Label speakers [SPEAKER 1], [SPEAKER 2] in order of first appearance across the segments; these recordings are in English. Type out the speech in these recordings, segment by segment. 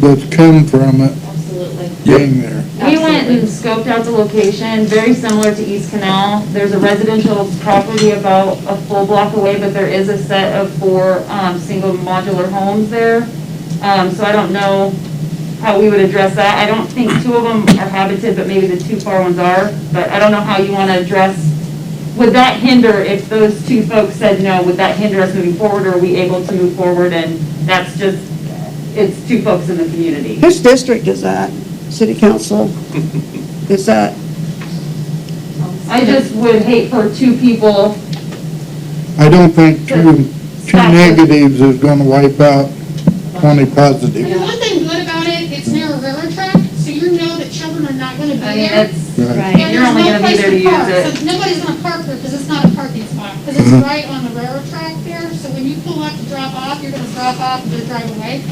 [SPEAKER 1] that's come from it
[SPEAKER 2] Absolutely.
[SPEAKER 1] being there.
[SPEAKER 2] We went and scoped out the location, very similar to East Canal. There's a residential property about a full block away, but there is a set of four, um, single modular homes there. Um, so I don't know how we would address that. I don't think two of them are habited, but maybe the two far ones are. But I don't know how you want to address, would that hinder, if those two folks said no, would that hinder us moving forward? Or are we able to move forward and that's just, it's two folks in the community?
[SPEAKER 3] Whose district is that? City council? Is that,
[SPEAKER 2] I just would hate for two people
[SPEAKER 1] I don't think two, two negatives is gonna wipe out twenty
[SPEAKER 4] I mean,
[SPEAKER 1] positives.
[SPEAKER 4] one thing good about it, it's near a railroad track, so you know that children are not gonna be
[SPEAKER 2] I mean,
[SPEAKER 4] there.
[SPEAKER 2] Oh, that's,
[SPEAKER 1] Right.
[SPEAKER 4] and
[SPEAKER 2] you're
[SPEAKER 4] there's
[SPEAKER 2] only
[SPEAKER 4] no
[SPEAKER 2] gonna be
[SPEAKER 4] place
[SPEAKER 2] there to use
[SPEAKER 4] park.
[SPEAKER 2] it. Mm-hmm.
[SPEAKER 4] So nobody's gonna park there, because it's not a parking spot, because it's right on the railroad track there, so when you pull up to drop off, you're gonna drop off and then drive away.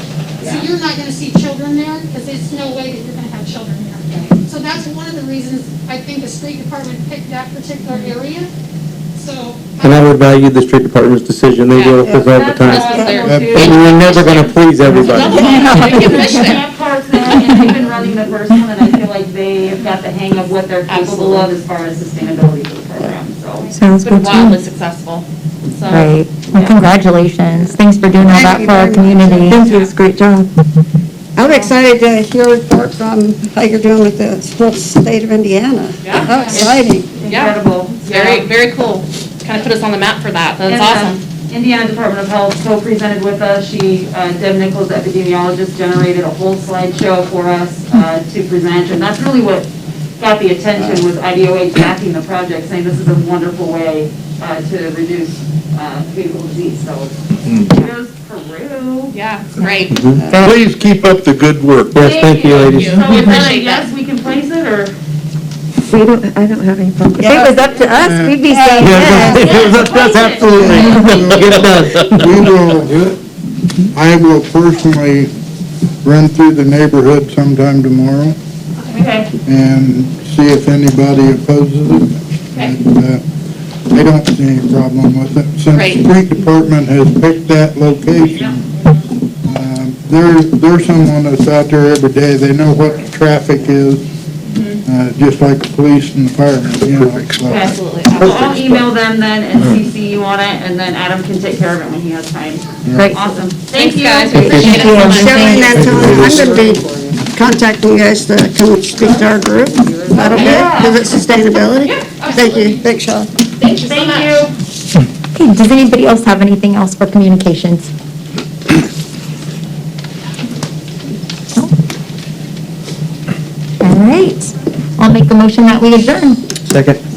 [SPEAKER 4] So you're not gonna see children there, because there's no way that you're gonna have children there. So that's one of the reasons I think the street department picked that particular area, so.
[SPEAKER 5] And I would value the street department's decision, they deal with this all the
[SPEAKER 2] that's
[SPEAKER 5] time.
[SPEAKER 2] how I
[SPEAKER 1] Yep.
[SPEAKER 2] feel too.
[SPEAKER 5] And we're never gonna please everybody.
[SPEAKER 2] Camp parks there, and we've been running the first one, and I feel like they have got the hang of what they're capable of as far as sustainability for the program, so.
[SPEAKER 6] It's
[SPEAKER 7] Sounds
[SPEAKER 6] been
[SPEAKER 7] good to
[SPEAKER 6] wildly
[SPEAKER 7] me.
[SPEAKER 6] successful. So,
[SPEAKER 7] Great. Well,
[SPEAKER 6] yeah.
[SPEAKER 7] congratulations. Thanks for doing all that for our community.
[SPEAKER 3] thank you, it's a great job. I'm excited to hear reports on how you're doing with the whole state of Indiana.
[SPEAKER 6] Yeah.
[SPEAKER 3] How exciting.
[SPEAKER 2] Incredible.
[SPEAKER 6] Very, very cool. Kind of put us on the map for that. That's
[SPEAKER 2] And,
[SPEAKER 6] awesome.
[SPEAKER 2] um, Indiana Department of Health co-presented with us. She, uh, Deb Nichols, epidemiologist, generated a whole slideshow for us uh, to present, and that's really what got the attention was IDOH backing the project, saying this is a wonderful way uh, to reduce uh, communicable disease, so kudos Peru.
[SPEAKER 6] Yeah, it's great.
[SPEAKER 1] Please keep up the good work.
[SPEAKER 5] Yes, thank you, ladies.
[SPEAKER 2] So is that a
[SPEAKER 6] Appreciate that.
[SPEAKER 2] yes, we can place it, or?
[SPEAKER 7] We don't, I don't have any problem. If it was up to us, we'd be saying
[SPEAKER 5] Yeah,
[SPEAKER 7] yes.
[SPEAKER 5] that's- That's absolutely, get it done.
[SPEAKER 1] We will, I will personally run through the neighborhood sometime tomorrow
[SPEAKER 2] Okay.
[SPEAKER 1] and see if anybody opposes it. And, uh, I don't see any problem with it. Since the
[SPEAKER 6] Great.
[SPEAKER 1] street department has picked that location, um, there, there's someone that's out there every day. They know what the traffic is, uh, just like the police and the firemen, you know. uh, so-
[SPEAKER 2] Okay.
[SPEAKER 6] Absolutely.
[SPEAKER 2] So I'll email them then and CC you on it, and then Adam can take care of it when he has time.
[SPEAKER 7] Great.
[SPEAKER 2] Awesome. Thank
[SPEAKER 6] Thanks,
[SPEAKER 2] you.
[SPEAKER 6] guys. We appreciate it
[SPEAKER 7] you.
[SPEAKER 6] so much.
[SPEAKER 3] Sharing that time, I'm going to be contacting you guys to come speak to our group about a bit, because it's sustainability. Thank you, thanks, Shaw.
[SPEAKER 6] Thank you so much.
[SPEAKER 2] Thank you.
[SPEAKER 7] Okay, does anybody else have anything else for communications? No? All right. I'll make the motion that we adjourn.
[SPEAKER 5] Second.